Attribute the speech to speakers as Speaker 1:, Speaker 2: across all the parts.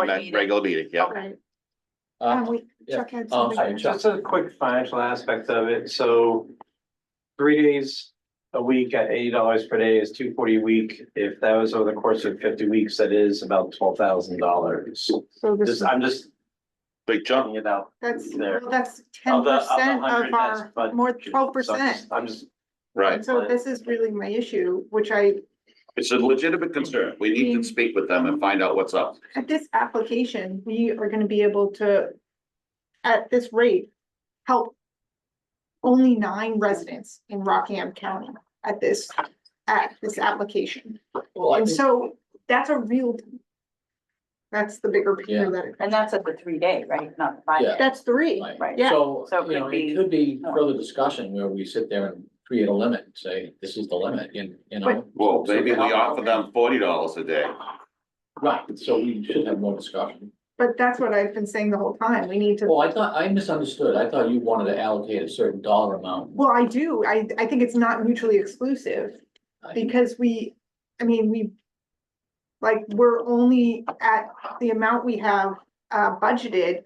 Speaker 1: regular
Speaker 2: next
Speaker 1: meeting.
Speaker 2: regular meeting, yeah.
Speaker 1: Okay.
Speaker 3: Uh,
Speaker 1: we,
Speaker 3: yeah.
Speaker 1: Chuck had
Speaker 3: Um,
Speaker 4: Oh,
Speaker 1: something.
Speaker 3: sorry, Chuck.
Speaker 4: Just a quick financial aspect of it, so three days a week at eighty dollars per day is two forty a week. If that was over the course of fifty weeks, that is about twelve thousand dollars.
Speaker 1: So this,
Speaker 4: Just,
Speaker 1: is-
Speaker 4: I'm just
Speaker 2: Big jump.
Speaker 4: jumping it out.
Speaker 1: that's,
Speaker 4: there.
Speaker 1: well, that's ten
Speaker 4: Of the- of the
Speaker 1: percent of
Speaker 4: 100, that's
Speaker 1: our,
Speaker 4: budget.
Speaker 1: more
Speaker 4: So
Speaker 1: twelve
Speaker 4: I'm
Speaker 1: percent.
Speaker 4: just- I'm just,
Speaker 2: Right.
Speaker 1: So this is really my issue, which I,
Speaker 2: It's a legitimate concern. We need to speak with them and find out what's up.
Speaker 1: at this application, we are gonna be able to, at this rate, help only nine residents in Rockingham County at this, at this application.
Speaker 3: Well, I
Speaker 1: And
Speaker 3: think,
Speaker 1: so that's a real, that's the bigger
Speaker 3: Yeah.
Speaker 1: picture that, it-
Speaker 5: And that's at the three day, right? Not the five
Speaker 3: Yeah.
Speaker 5: day.
Speaker 1: that's three.
Speaker 3: like,
Speaker 5: Right.
Speaker 1: yeah.
Speaker 3: so,
Speaker 5: So it
Speaker 3: you know,
Speaker 5: could
Speaker 3: it
Speaker 5: be-
Speaker 3: could be further discussion where we sit there and create a limit, say, this is the limit, and, you know.
Speaker 2: Well, maybe we offer them forty dollars a day.
Speaker 3: Right, so we should have more discussion.
Speaker 1: But that's what I've been saying the whole time. We need to
Speaker 3: Well, I thought, I misunderstood. I thought you wanted to allocate a certain dollar amount.
Speaker 1: Well, I do. I, I think it's not mutually exclusive
Speaker 3: I-
Speaker 1: because we, I mean, we. Like, we're only at the amount we have, uh, budgeted.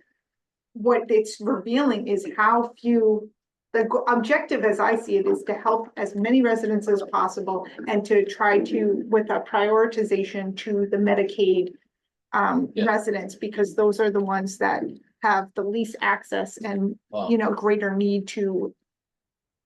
Speaker 1: What it's revealing is how few, the go- objective as I see it is to help as many residents as possible. And to try to, with a prioritization to the Medicaid, um,
Speaker 3: Yeah.
Speaker 1: residents, because those are the ones that have the least access and
Speaker 3: well,
Speaker 1: you know, greater need to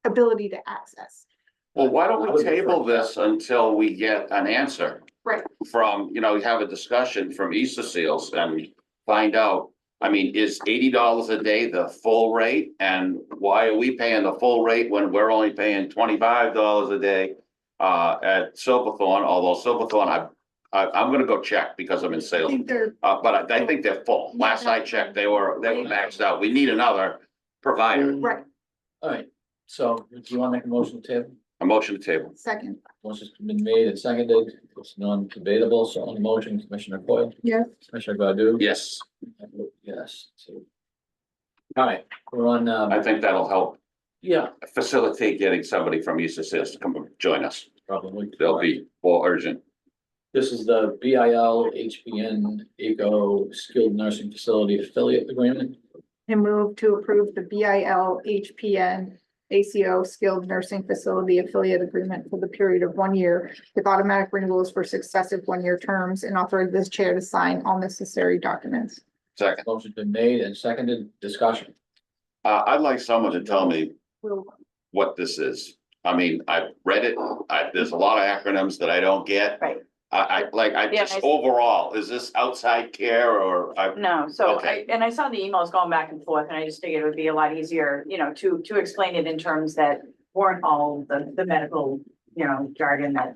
Speaker 1: ability to access.
Speaker 2: Well, why don't we table this until we get an answer?
Speaker 1: Right.
Speaker 2: From, you know, have a discussion from Easter Seals and find out. I mean, is eighty dollars a day the full rate? And why are we paying the full rate when we're only paying twenty-five dollars a day? Uh, at Silverthorne, although Silverthorne, I, I, I'm gonna go check because I'm in
Speaker 1: I
Speaker 2: sales.
Speaker 1: think they're,
Speaker 2: Uh, but
Speaker 5: Oh.
Speaker 2: I I think they're full.
Speaker 1: Yeah,
Speaker 2: Last I
Speaker 1: that's
Speaker 2: checked,
Speaker 1: fine.
Speaker 2: they were, they were maxed out. We need another provider.
Speaker 1: right,
Speaker 3: All right, so do you want to make a motion, Tim?
Speaker 2: A motion to table.
Speaker 1: second,
Speaker 3: Motion's been made and seconded. It's non-debatable. So on the motion, Commissioner Coyle?
Speaker 1: Yes.
Speaker 3: Commissioner Godu?
Speaker 2: Yes,
Speaker 3: I vote Yes. too. All right, we're on,
Speaker 2: I
Speaker 3: um,
Speaker 2: think that'll help
Speaker 3: yeah,
Speaker 2: facilitate getting somebody from East Assist to come join us.
Speaker 3: probably.
Speaker 2: They'll be more urgent.
Speaker 3: This is the B I L H P N ACO Skilled Nursing Facility Affiliate Agreement.
Speaker 1: and move to approve the B I L H P N ACO Skilled Nursing Facility Affiliate Agreement for the period of one year with automatic renewals for successive one-year terms and authorize this chair to sign all necessary documents.
Speaker 2: Second,
Speaker 3: Motion's been made and seconded. Discussion.
Speaker 2: uh, I'd like someone to tell me
Speaker 1: Will,
Speaker 2: what this is. I mean, I've read it. I, there's a lot of acronyms that I don't get.
Speaker 5: Right.
Speaker 2: I, I, like, I
Speaker 5: Yeah,
Speaker 2: just,
Speaker 5: I-
Speaker 2: overall, is this outside care or uh, I,
Speaker 5: No, so I,
Speaker 2: Okay.
Speaker 5: and I saw the emails going back and forth and I just figured it would be a lot easier, you know, to, to explain it in terms that weren't all the, the medical, you know, jargon that.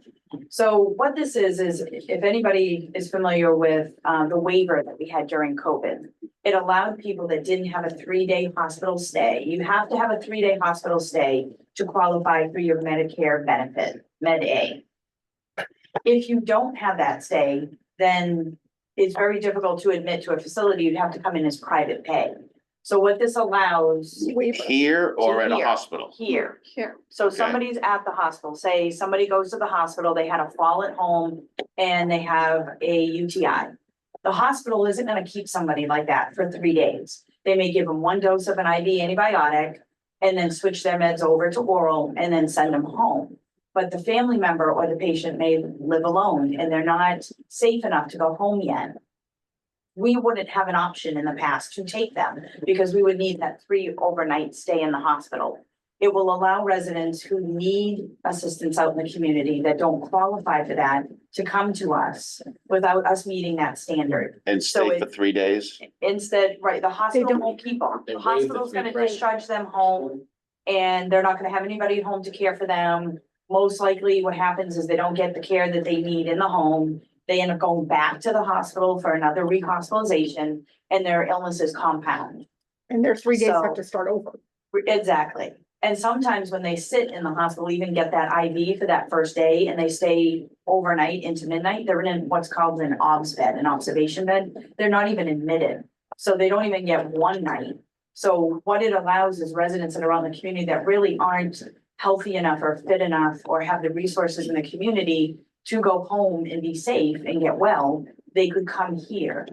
Speaker 5: So what this is, is if anybody is familiar with, uh, the waiver that we had during COVID, it allowed people that didn't have a three-day hospital stay, you have to have a three-day hospital stay to qualify for your Medicare benefit, Med A. If you don't have that stay, then it's very difficult to admit to a facility, you'd have to come in as private pay. So what this allows
Speaker 1: waiver.
Speaker 2: here or at a
Speaker 5: Here.
Speaker 2: hospital?
Speaker 5: here,
Speaker 1: Here.
Speaker 5: so
Speaker 2: Okay.
Speaker 5: somebody's at the hospital, say somebody goes to the hospital, they had a fall at home and they have a UTI. The hospital isn't gonna keep somebody like that for three days. They may give them one dose of an IV antibiotic and then switch their meds over to oral and then send them home. But the family member or the patient may live alone and they're not safe enough to go home yet. We wouldn't have an option in the past to take them because we would need that three overnight stay in the hospital. It will allow residents who need assistance out in the community that don't qualify for that to come to us without us meeting that standard.
Speaker 2: And
Speaker 5: So
Speaker 2: stay for
Speaker 5: it's-
Speaker 2: three days?
Speaker 5: Instead, right, the hospital
Speaker 1: don't-
Speaker 5: won't keep them.
Speaker 3: They
Speaker 5: The
Speaker 3: waive the
Speaker 5: hospital's gonna
Speaker 3: fee, right.
Speaker 5: discharge them home and they're not gonna have anybody at home to care for them. Most likely what happens is they don't get the care that they need in the home. They end up going back to the hospital for another rehospitalization and their illnesses compound.
Speaker 1: And their three days have
Speaker 5: So-
Speaker 1: to start over.
Speaker 5: Exactly. And sometimes when they sit in the hospital, even get that IV for that first day and they stay overnight into midnight, they're in what's called an obs bed, an observation bed. They're not even admitted. So they don't even get one night. So what it allows is residents that are around the community that really aren't healthy enough or fit enough or have the resources in the community to go home and be safe and get well, they could come here.